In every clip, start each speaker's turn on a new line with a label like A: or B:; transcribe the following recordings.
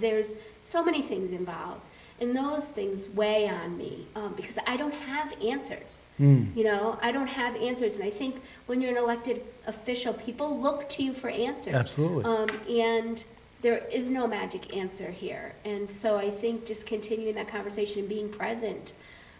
A: There's so many things involved, and those things weigh on me um, because I don't have answers.
B: Hmm.
A: You know, I don't have answers, and I think when you're an elected official, people look to you for answers.
B: Absolutely.
A: Um, and there is no magic answer here, and so I think just continuing that conversation and being present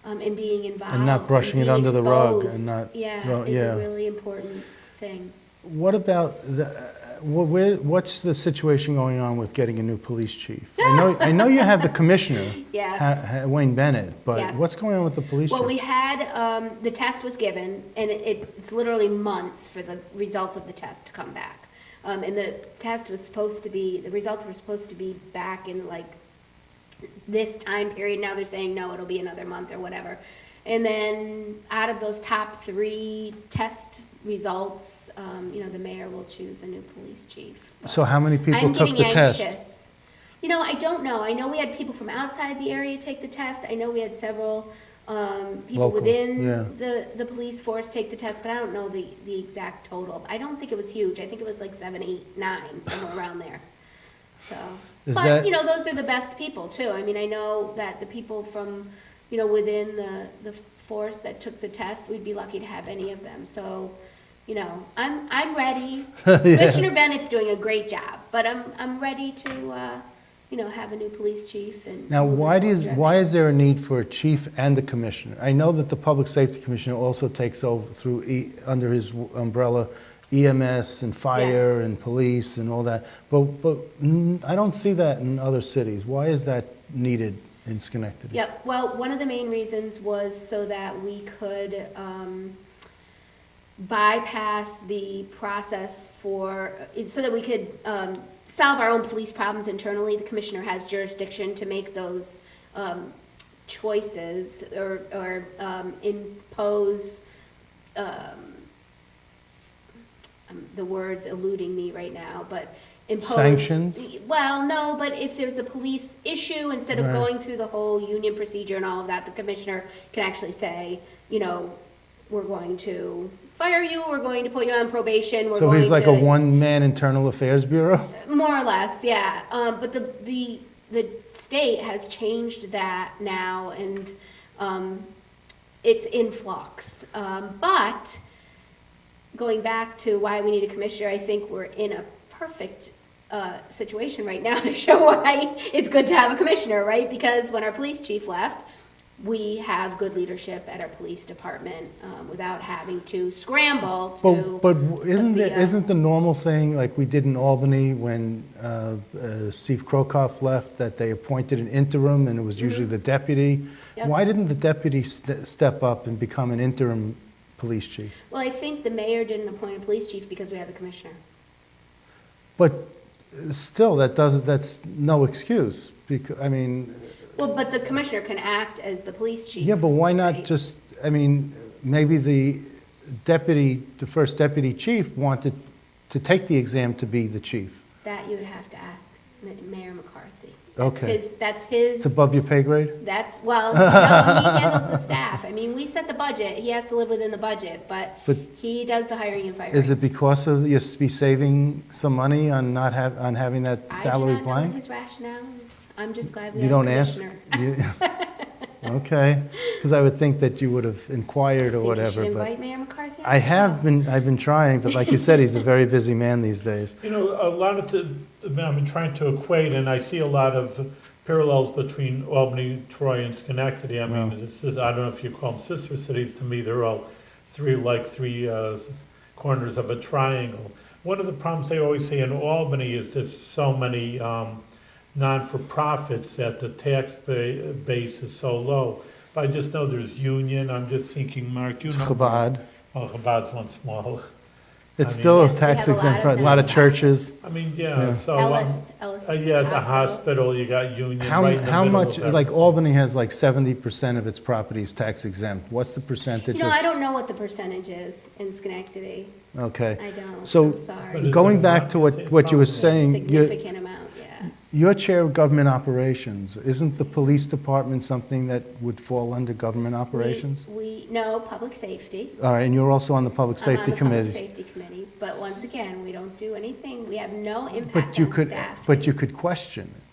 A: um, and being involved
B: brushing it
A: being
B: under the rug and
A: exposed,
B: not
A: yeah,
B: throw-
A: is
B: yeah.
A: a really important thing.
B: What about the, uh, wh- where, what's the situation going on with getting a new police chief? I know, I know you have the commissioner,
A: Yes.
B: Ha- Ha- Wayne Bennett, but
A: Yes.
B: what's going on with the police
A: Well, we
B: chief?
A: had, um, the test was given, and it, it's literally months for the results of the test to come back. Um, and the test was supposed to be, the results were supposed to be back in like this time period. Now they're saying, no, it'll be another month or whatever. And then out of those top three test results, um, you know, the mayor will choose a new police chief.
B: So how many people
A: I'm
B: took
A: getting
B: the test?
A: anxious. You know, I don't know. I know we had people from outside the area take the test. I know we had several um, people
B: Local,
A: within
B: yeah.
A: the, the police force take the test, but I don't know the, the exact total. I don't think it was huge. I think it was like seven, eight, nine, somewhere around there. So,
B: Is
A: but,
B: that-
A: you know, those are the best people too. I mean, I know that the people from, you know, within the, the force that took the test, we'd be lucky to have any of them. So, you know, I'm, I'm ready. Commissioner Bennett's doing a great job, but I'm, I'm ready to, uh, you know, have a new police chief and.
B: Now, why do, you-
A: Yeah.
B: why is there a need for a chief and a commissioner? I know that the public safety commissioner also takes over through, E- under his w- umbrella EMS and fire and police and all that, but, but mm, I don't see that in other cities. Why is that needed in Schenectady?
A: Yep, well, one of the main reasons was so that we could um, bypass the process for, so that we could um, solve our own police problems internally. The commissioner has jurisdiction to make those um, choices or or, um, impose um, the word's eluding me right now, but impose.
B: Sanctions?
A: Well, no, but if there's a police issue, instead of
B: Right.
A: going through the whole union procedure and all of that, the commissioner can actually say, you know, we're going to fire you, we're going to put you on probation, we're
B: So
A: going to.
B: he's like a one-man internal affairs bureau?
A: More or less, yeah. Um, but the, the, the state has changed that now and, um, it's in flux. Um, but going back to why we need a commissioner, I think we're in a perfect, uh, situation right now to show why it's good to have a commissioner, right? Because when our police chief left, we have good leadership at our police department, um, without having to scramble to.
B: But, but isn't,
A: the,
B: the-
A: uh,
B: isn't the normal thing, like we did in Albany when uh, uh, Steve Krokoff left, that they appointed an interim and it was usually the deputy?
A: Mm-hmm. Yep.
B: Why didn't the deputy ste- step up and become an interim police chief?
A: Well, I think the mayor didn't appoint a police chief because we have the commissioner.
B: But uh, still, that doesn't, that's no excuse, because, I mean,
A: Well, but the commissioner can act as the police chief.
B: yeah, but why not
A: Right.
B: just, I mean, maybe the deputy, the first deputy chief wanted to take the exam to be the chief.
A: That you would have to ask Ma- Mayor McCarthy.
B: Okay.
A: His- That's
B: It's
A: his,
B: above your pay grade?
A: that's, well, no, he handles the staff. I mean, we set the budget, he has to live within the budget, but
B: But-
A: he does the hiring and
B: Is
A: firing.
B: it because of, you be saving some money on not have, on having that
A: I do
B: salary
A: not know
B: blank?
A: his rationale. I'm just glad we
B: You
A: have a
B: don't ask?
A: commissioner.
B: You- Okay, because I would think that you would have
A: Think
B: inquired or
A: you should
B: whatever, but
A: invite Mayor McCarthy?
B: I have been, I've been trying, but like you said, he's a very busy man these days.
C: You know, a lot of the, I mean, I'm trying to equate, and I see a lot of parallels between Albany, Troy, and Schenectady. I mean, this is, I don't know if you call them sister cities, to me, they're all three, like three uh, s- corners of a triangle. One of the problems they always say in Albany is there's so many um, non-for-profits that the tax ba- base is so low. But I just know there's Union, I'm just thinking, Mark, you know.
B: Chabad,
C: Well, Chabad's one smaller.
B: it's
C: I
B: still
A: mean- Yes,
B: a
A: we
B: tax
A: have a lot
B: exempt,
A: of
B: pro- a lot of
A: nonprofits.
B: churches.
C: I mean,
B: Yeah.
C: yeah, so. um,
A: Ellis, Ellis.
C: Uh, yeah, at the hospital, you got Union
B: How,
C: right in the
B: how
C: middle
B: much,
C: of that.
B: like Albany has like seventy percent of its properties tax exempt, what's the percentage
A: You
B: of?
A: know, I don't know what the percentage is in Schenectady.
B: Okay.
A: I don't,
B: So,
A: I'm
C: But
A: sorry.
C: it's
B: Going
C: a
B: back to what,
C: lot-
B: what you were
C: it's probably
B: saying, you
A: Significant amount, yeah.
B: Your chair of government operations, isn't the police department something that would fall under government
A: We-
B: operations?
A: We, no, public safety.
B: All right, and you're also on the public
A: I'm on
B: safety
A: the Public
B: committee.
A: Safety committee, but once again, we don't do anything, we have no impact
B: But you
A: on
B: could,
A: staff.
B: but you could question it.